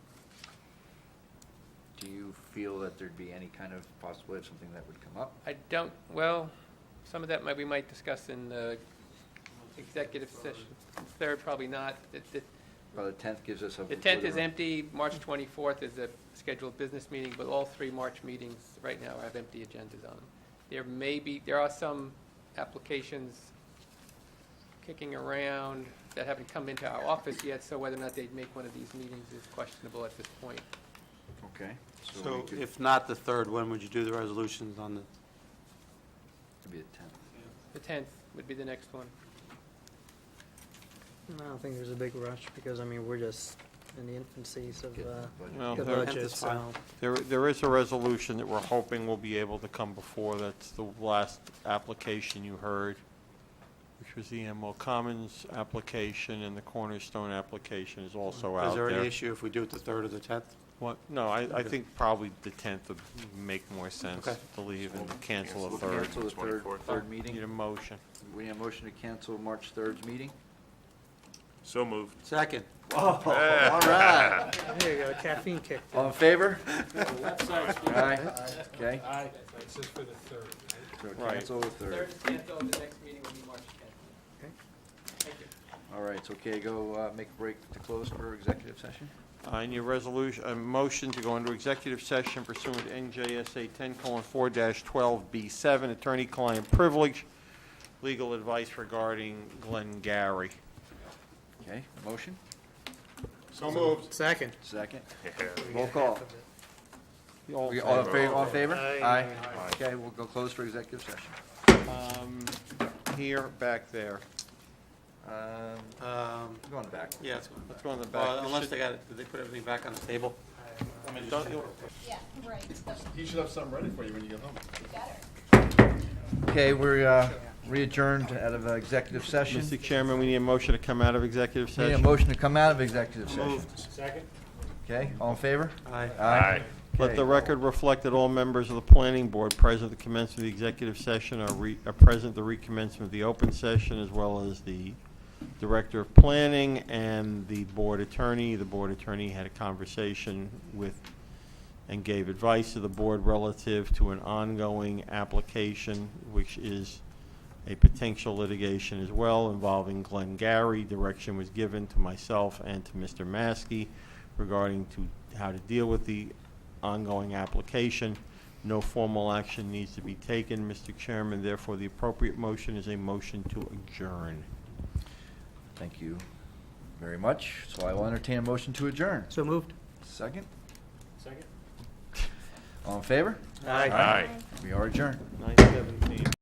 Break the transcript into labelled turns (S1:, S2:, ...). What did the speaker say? S1: you feel that there'd be any kind of possibility of something that would come up?
S2: I don't, well, some of that might, we might discuss in the executive session. Third, probably not. The- the-
S1: Well, the tenth gives us a.
S2: The 10th is
S1: whatever-
S2: empty, March 24th is a scheduled business meeting, but all three March meetings right now have empty agendas on them. There may be, there are some applications kicking around that haven't come into our office yet, so whether or not they'd make one of these meetings is questionable at this point.
S1: Okay. we
S3: So
S1: could-
S3: if not the third, when would you do the resolutions on the,
S1: It'd be the tenth.
S2: The 10th would be the next one.
S4: I don't think there's a big rush because, I mean, we're just in the infancies of
S1: Get the
S4: uh,
S1: budget.
S5: Well,
S4: the
S5: there-
S3: Tenth
S4: budget,
S3: is fine.
S4: so.
S5: There, there is a resolution that we're hoping will be able to come before, that's the last application you heard, which was the Emerald Commons application, and the Cornerstone application is also out
S3: is there any
S5: there.
S3: issue if we do it the third or the tenth?
S5: What, no, I, I think probably the tenth would make more sense
S3: Okay.
S5: to leave and cancel the
S1: We'll
S5: third.
S1: cancel the third, third
S5: Need a
S1: meeting.
S5: motion.
S1: We need a motion to cancel March third's meeting?
S6: So moved.
S3: Second.
S1: All right.
S4: There you go, caffeine kick.
S1: All in favor? Aye. Okay. Aye. That's for the third. So
S5: Right.
S1: cancel the third.
S2: canceled, the next meeting will be March 10th.
S4: Okay.
S2: Thank you.
S1: All right, so okay, go uh, make a break to close for executive session?
S5: I need a Uh, resolution, a motion to go into executive session pursuant to NJSA ten four twelve B seven, attorney-client privilege, legal advice regarding Glenn Gary.
S1: Okay, motion,
S3: So moved.
S4: Second.
S1: second.
S6: Yeah.
S5: Roll call.
S1: We- All in favor, all in favor? Aye. Okay, we'll go close for executive session.
S5: Um, Here, back there.
S1: Um,
S3: Um,
S1: Going back.
S3: yeah, it's-
S5: Let's go in the
S3: well,
S5: back.
S3: unless they got, it- did they put everything back on the table?
S5: Don't you-
S7: Yeah, right, that's
S8: He should have something ready for you when you get home.
S7: better.
S1: Okay, we're uh, re-adjourned out of uh, executive session.
S5: Mr. Chairman, we need a motion to come out of executive
S1: Need a
S5: session.
S1: motion to come out of executive session. Okay, all in favor?
S3: Aye.
S6: Aye.
S5: Let the
S1: Okay.
S5: record reflect that all members of the planning board present at the commencement of the executive session are re, are present at the recommencement of the open session, as well as the director of planning and the board attorney. The board attorney had a conversation with and gave advice to the board relative to an ongoing application, which is a potential litigation as well involving Glenn Gary. Direction was given to myself and to Mr. Maskey regarding to how to deal with the ongoing application. No formal action needs to be taken, Mr. Chairman, therefore the appropriate motion is a motion to adjourn.
S1: Thank you very much. So I will entertain a motion to adjourn.
S4: So moved.
S1: Second? Second. All in favor?
S3: Aye.
S6: Aye.
S1: We are adjourned.
S5: Nine seventeen.